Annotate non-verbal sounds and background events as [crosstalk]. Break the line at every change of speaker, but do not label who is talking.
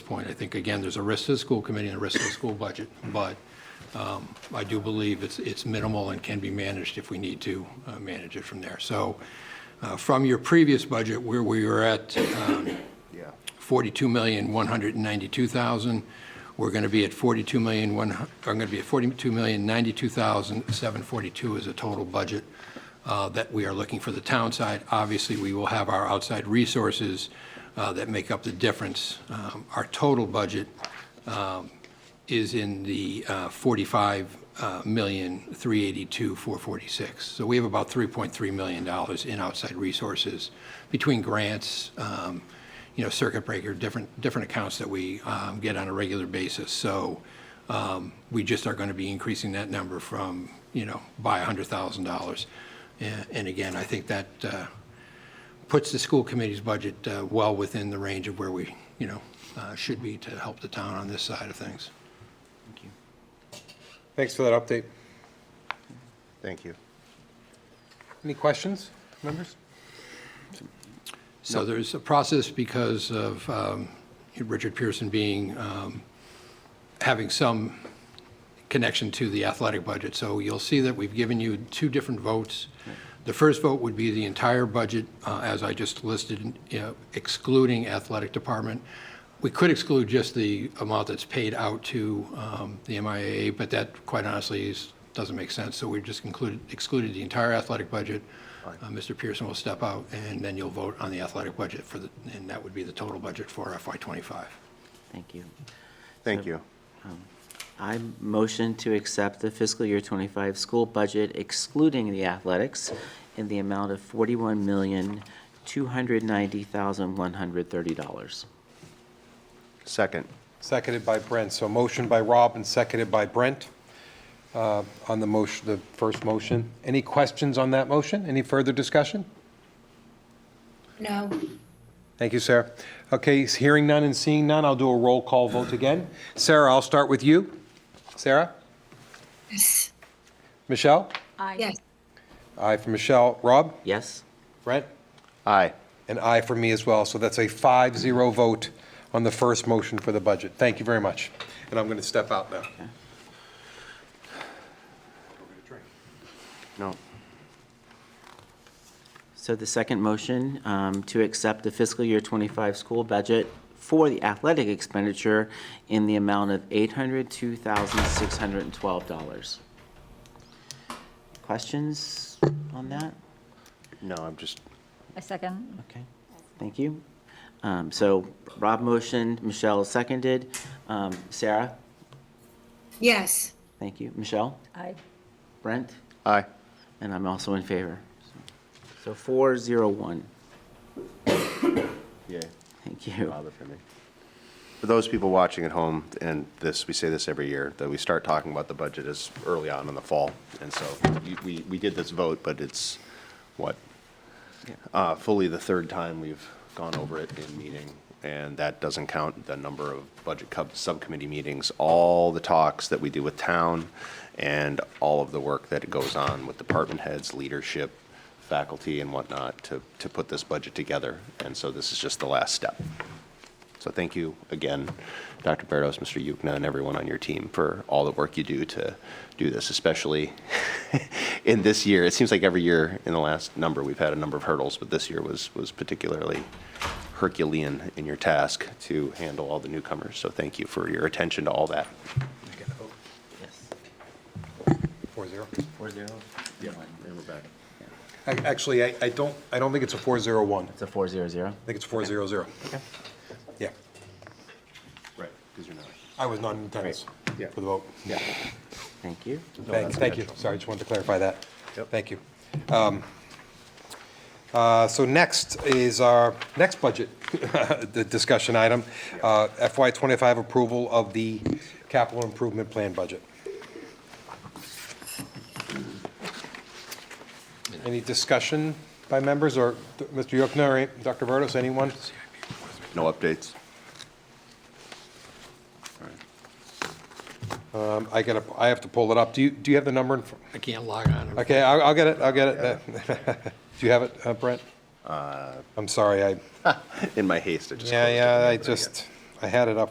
point. I think, again, there's a risk to the school committee and a risk to the school budget, but um, I do believe it's, it's minimal and can be managed if we need to uh, manage it from there. So uh, from your previous budget, where we were at um,
Yeah.
42,192,000, we're going to be at 42 million, one, I'm going to be at 42,092,742 is a total budget uh, that we are looking for the town side. Obviously, we will have our outside resources uh, that make up the difference. Um, Our total budget um, is in the uh, 45 uh, million, 382, 446. So we have about $3.3 million dollars in outside resources between grants, um, you know, circuit breaker, different, different accounts that we um, get on a regular basis. So um, we just are going to be increasing that number from, you know, by $100,000. And- And again, I think that uh, puts the school committee's budget uh, well within the range of where we, you know, uh, should be to help the town on this side of things.
Thanks for that update.
Thank you.
Any questions, members?
So there's a process because of um, Richard Pearson being, um, having some connection to the athletic budget. So you'll see that we've given you two different votes. The first vote would be the entire budget, uh, as I just listed, you know, excluding athletic department. We could exclude just the amount that's paid out to um, the MIAA, but that, quite honestly, is- doesn't make sense. So we just included, excluded the entire athletic budget. Uh, Mr. Pearson will step out, and then you'll vote on the athletic budget for the, and that would be the total budget for FY '25.
Thank you.
Thank you.
I motion to accept the fiscal year 25 school budget excluding the athletics in the amount of $41,290,130.
Second.
Seconded by Brent. So motion by Rob and seconded by Brent uh, on the motion, the first motion. Any questions on that motion? Any further discussion?
No.
Thank you, Sarah. Okay, s- hearing none and seeing none, I'll do a roll call vote again. Sarah, I'll start with you. Sarah?
Yes.
Michelle?
Yes.
Aye for Michelle. Rob?
Yes?
Brent?
Aye.
An aye for me as well. So that's a 5-0 vote on the first motion for the budget. Thank you very much. And I'm going to step out now.
No.
So the second motion, um, to accept the fiscal year 25 school budget for the athletic expenditure in the amount of $802,612. Questions on that?
No, I'm just,
I second.
Okay, thank you. Um, So Rob motioned, Michelle seconded. Um, Sarah,
Yes.
thank you. Michelle,
Aye.
Brent,
aye.
and I'm also in favor. So 401,
Yay.
thank you.
Bother for me. For those people watching at home, and this, we say this every year, that we start talking about the budget as early on in the fall. And so you- we, we did this vote, but it's, what, uh, fully the third time we've gone over it in meeting, and that doesn't count the number of budget cub- subcommittee meetings, all the talks that we do with town, and all of the work that goes on with department heads, leadership, faculty, and whatnot, to, to put this budget together. And so this is just the last step. So thank you again, Dr. Berdos, Mr. Yukna, and everyone on your team for all the work you do to do this, especially [laughs] in this year. It seems like every year in the last number, we've had a number of hurdles, but this year was, was particularly Herculean in your task to handle all the newcomers. So thank you for your attention to all that.
4-0.
Four zero? Yeah, and we're back.
Ac- Actually, I, I don't, I don't think it's a 4-0-1. I
It's a 400?
think it's 4-0-0. Yeah,
Right, because you're not.
I was not in attendance
Yeah.
for the vote. Yeah.
Thank you.
Thank,
that's
thank you.
natural.
Sorry, just wanted to clarify that.
Yep.
Thank you. Um, uh, So next is our next budget [laughs] the discussion item, uh, FY '25 approval of the capital improvement plan budget. Any discussion by members, or Mr. Yocna or Dr. Burdos, anyone?
No updates?
Um, I gotta, I have to pull it up. Do you, do you have the number? in fr-
I can't log on.
Okay, I'll, I'll get it, I'll get it. [laughs] Do you have it, uh, Brent? I'm sorry, I,
In my haste, I Uh, just.
yeah,
closed it.
yeah, I just, I had it up